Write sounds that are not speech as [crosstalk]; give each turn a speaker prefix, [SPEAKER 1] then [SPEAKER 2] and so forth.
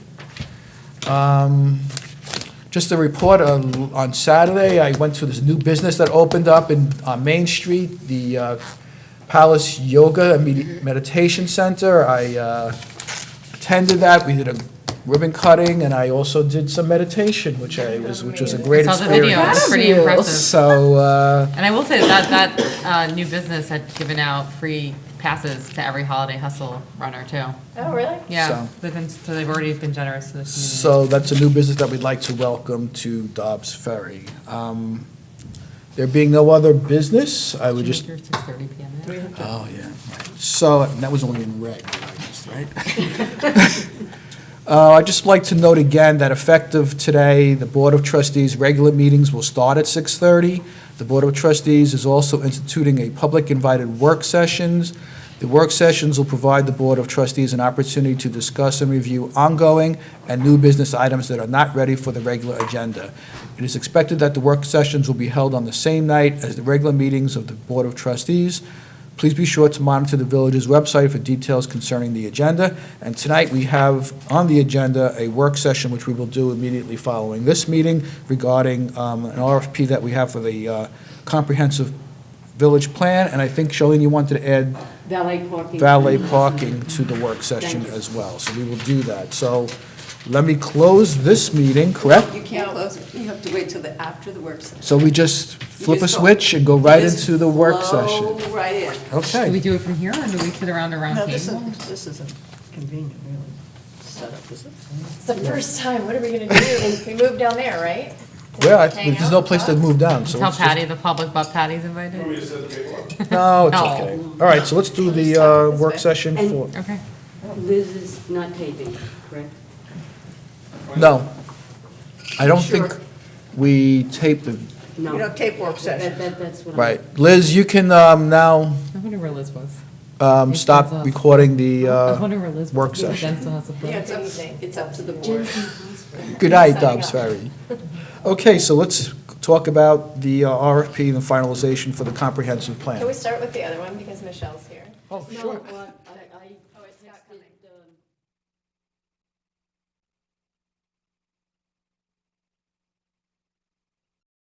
[SPEAKER 1] Um, Just a report, on on Saturday, I went to this new business that opened up in, on Main Street, the uh, Palace Yoga and Medi- Meditation Center. I uh, attended that, we did a ribbon cutting, and I also did some meditation, which I was, which was a great
[SPEAKER 2] Saw the video, it
[SPEAKER 1] experience.
[SPEAKER 2] was pretty
[SPEAKER 3] Fabulous.
[SPEAKER 2] impressive.
[SPEAKER 1] So, uh,
[SPEAKER 2] And I will say that, that uh, new business had given out free passes to every holiday hustle runner too.
[SPEAKER 3] Oh, really?
[SPEAKER 2] Yeah,
[SPEAKER 1] So-
[SPEAKER 2] they've been, so they've already been generous to the community.
[SPEAKER 1] So that's a new business that we'd like to welcome to Dobbs Ferry. Um, There being no other business, I would just,
[SPEAKER 2] Six thirty PM.
[SPEAKER 1] oh, yeah. So, and that was only in red, I guess, right? [laughs] Uh, I'd just like to note again that effective today, the Board of Trustees' regular meetings will start at 6:30. The Board of Trustees is also instituting a public invited work sessions. The work sessions will provide the Board of Trustees an opportunity to discuss and review ongoing and new business items that are not ready for the regular agenda. It is expected that the work sessions will be held on the same night as the regular meetings of the Board of Trustees. Please be sure to monitor the village's website for details concerning the agenda. And tonight, we have on the agenda a work session, which we will do immediately following this meeting regarding um, an RFP that we have for the uh, comprehensive village plan. And I think, Charlene, you wanted to add
[SPEAKER 3] Valet parking.
[SPEAKER 1] valet parking to the work session
[SPEAKER 3] Thank you.
[SPEAKER 1] as well. So we will do that. So let me close this meeting, correct?
[SPEAKER 4] You can't close it, you have to wait till the, after the work session.
[SPEAKER 1] So we just flip a
[SPEAKER 4] just go-
[SPEAKER 1] switch and go right
[SPEAKER 4] Just
[SPEAKER 1] into the work
[SPEAKER 4] flow
[SPEAKER 1] session?
[SPEAKER 4] right in.
[SPEAKER 1] Okay.
[SPEAKER 2] Do we do it from here or do we sit around a round
[SPEAKER 5] No, this
[SPEAKER 2] table?
[SPEAKER 5] isn't, this isn't convenient, really, setup, is it?
[SPEAKER 3] It's the first time, what are we gonna
[SPEAKER 1] [laughs]
[SPEAKER 3] do? We moved down there, right?
[SPEAKER 1] Well, I-
[SPEAKER 3] Hang
[SPEAKER 1] there's
[SPEAKER 3] out,
[SPEAKER 1] no place to
[SPEAKER 3] talk?
[SPEAKER 1] move down, so
[SPEAKER 2] Tell
[SPEAKER 1] let's just-
[SPEAKER 2] Patty the public, but Patty's invited.
[SPEAKER 1] No, it's
[SPEAKER 2] No.
[SPEAKER 1] okay. All right, so let's do the uh, work session for,
[SPEAKER 2] Okay.
[SPEAKER 6] Liz is not taping, correct?
[SPEAKER 1] no. I don't think we taped the,
[SPEAKER 6] No.
[SPEAKER 5] You know, tape work
[SPEAKER 6] That,
[SPEAKER 5] session.
[SPEAKER 6] that, that's what I'm.
[SPEAKER 1] right. Liz, you can um, now
[SPEAKER 2] I wonder where Liz was.
[SPEAKER 1] um, stop recording the,
[SPEAKER 2] I
[SPEAKER 1] uh,
[SPEAKER 2] wonder where Liz was.
[SPEAKER 1] work
[SPEAKER 2] Maybe
[SPEAKER 1] session.
[SPEAKER 2] Jen still has the book.
[SPEAKER 4] Yeah, it's up, it's up to the board.
[SPEAKER 1] good night, Dobbs Ferry. Okay, so let's talk about the uh, RFP and the finalization for the comprehensive plan.
[SPEAKER 3] Can we start with the other one, because Michelle's here?
[SPEAKER 1] Oh,
[SPEAKER 6] No,
[SPEAKER 1] sure.
[SPEAKER 6] well, I, I
[SPEAKER 3] Oh, it's not coming.